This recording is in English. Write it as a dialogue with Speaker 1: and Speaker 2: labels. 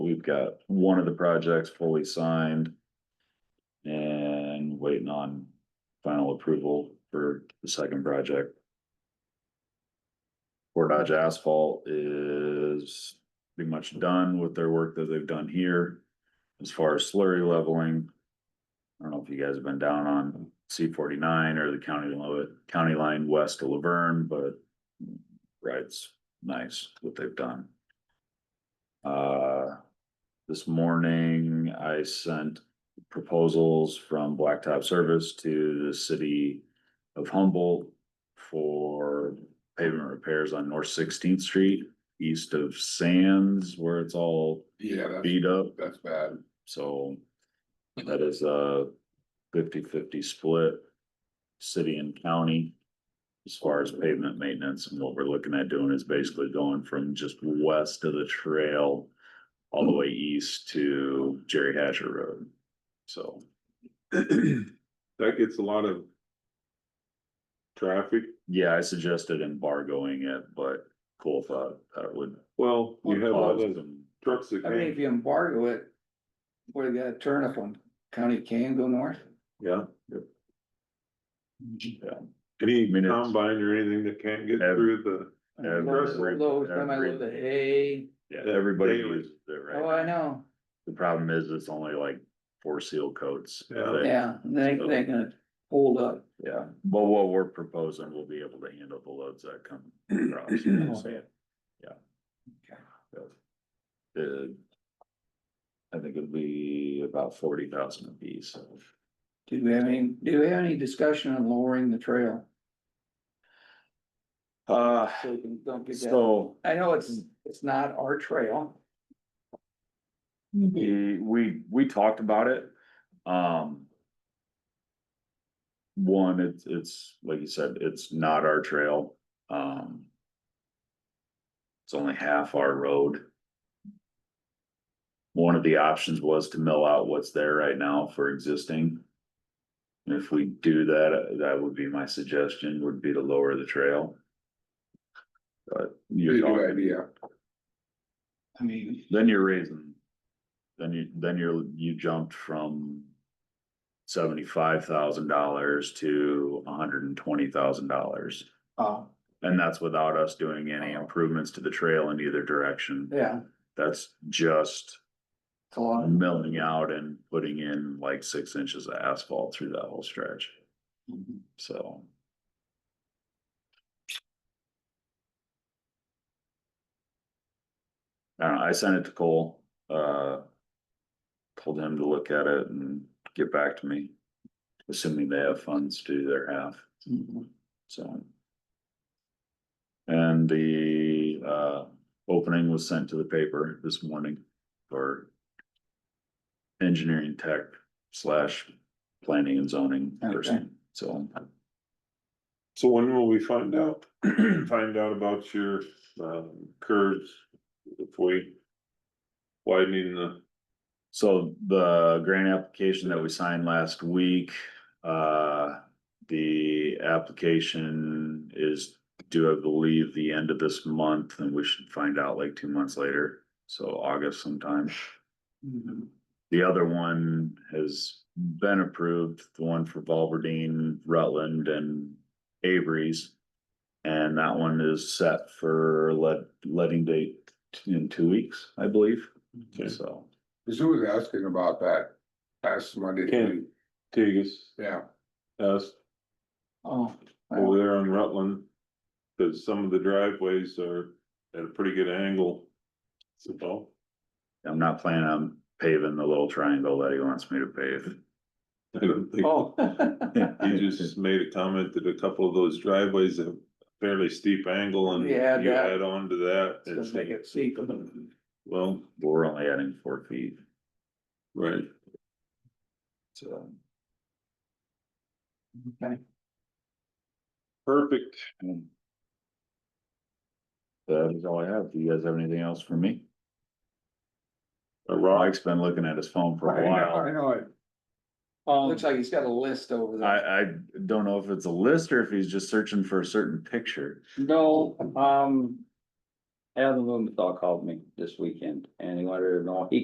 Speaker 1: we've got one of the projects fully signed. And waiting on final approval for the second project. Fort Dodge Asphalt is pretty much done with their work that they've done here. As far as slurry leveling. I don't know if you guys have been down on C forty-nine or the county, lo- county line west of Laverne, but. Right, it's nice what they've done. Uh, this morning I sent proposals from Blacktop Service to the city of Humboldt. For pavement repairs on North Sixteenth Street, east of Sands, where it's all
Speaker 2: Yeah, that's,
Speaker 1: beat up.
Speaker 2: that's bad.
Speaker 1: So that is a 50-50 split, city and county. As far as pavement maintenance and what we're looking at doing is basically going from just west of the trail all the way east to Jerry Hatcher Road. So,
Speaker 2: That gets a lot of traffic.
Speaker 1: yeah, I suggested embargoing it, but cool thought that would.
Speaker 2: Well, you have all
Speaker 1: cause
Speaker 2: those
Speaker 1: them-
Speaker 2: trucks that
Speaker 3: I mean, if
Speaker 2: can't,
Speaker 3: you embargo it, where you gotta turn up on County Can go north?
Speaker 2: yeah,
Speaker 1: Yeah.
Speaker 2: any
Speaker 1: I mean, it's-
Speaker 2: combine or anything that can't get
Speaker 1: Ev-
Speaker 2: through the.
Speaker 3: I mean, loads-
Speaker 1: Every-
Speaker 3: loads, time I load the
Speaker 1: every-
Speaker 3: hay,
Speaker 1: Yeah, everybody
Speaker 2: Daily.
Speaker 1: uses it right
Speaker 3: oh, I
Speaker 1: now.
Speaker 3: know,
Speaker 1: The problem is it's only like four seal coats.
Speaker 2: Yeah.
Speaker 1: that-
Speaker 3: yeah, they, they can hold up.
Speaker 1: Yeah, but what we're proposing, we'll be able to handle the loads that come across.
Speaker 3: Okay.
Speaker 1: The- I think it'd be about forty thousand apiece.
Speaker 3: Do we have any, do we have any discussion on lowering the trail?
Speaker 1: Uh,
Speaker 3: So we can, don't get that,
Speaker 1: so
Speaker 3: I know it's, it's not our trail.
Speaker 1: we, we, we talked about it, um. One, it's, it's, like you said, it's not our trail, um. It's only half our road. One of the options was to mill out what's there right now for existing. And If we do that, that would be my suggestion, would be to lower the trail. But you're talking,
Speaker 3: I mean,
Speaker 1: then you're raising. Then you, then you're, you jumped from. Seventy-five thousand dollars to hundred and twenty thousand dollars,
Speaker 3: uh,
Speaker 1: and that's without us doing any improvements to the trail in either direction.
Speaker 3: yeah,
Speaker 1: That's just
Speaker 3: it's a lot.
Speaker 1: milling out and putting in like six inches of asphalt through that whole stretch, so. I don't know, I sent it to Cole, uh. Told him to look at it and get back to me, assuming they have funds to do their half, so. And the, uh, opening was sent to the paper this morning for. Engineering tech slash planning and zoning person, so.
Speaker 2: So when will we find out, find out about your, um, curves? If we widening the,
Speaker 1: So the grant application that we signed last week, uh, the application is due, I believe, the end of this month, and we should find out like two months later, so August sometime. The other one has been approved, the one for Valverdeen, Rutland and Avery's. And that one is set for let, letting date in two weeks, I believe, so.
Speaker 4: Cause who was asking about that last Monday?
Speaker 2: Ken. Tegas,
Speaker 4: Yeah,
Speaker 2: us
Speaker 3: Oh,
Speaker 2: over there on Rutland. Cause some of the driveways are at a pretty good angle. So, well,
Speaker 1: I'm not planning on paving the little triangle that he wants me to pave.
Speaker 2: I don't think.
Speaker 3: oh.
Speaker 2: He just made a comment that a couple of those driveways have fairly steep angle and you
Speaker 3: Yeah, that-
Speaker 2: add on to that.
Speaker 3: It's gonna make it
Speaker 2: it's-
Speaker 3: steep.
Speaker 2: Well,
Speaker 1: We're only adding four feet,
Speaker 2: right,
Speaker 1: so.
Speaker 3: Okay.
Speaker 2: perfect.
Speaker 1: um, That is all I have. Do you guys have anything else for me?
Speaker 2: A rock,
Speaker 1: Mike's been looking at his phone for
Speaker 4: I
Speaker 1: a
Speaker 4: know,
Speaker 1: while.
Speaker 4: I know, it. Um,
Speaker 3: Looks like he's got a list over there.
Speaker 1: I, I don't know if it's a list or if he's just searching for a certain picture.
Speaker 5: No, um. Adam Lumenthal called me this weekend and he wanted to know, he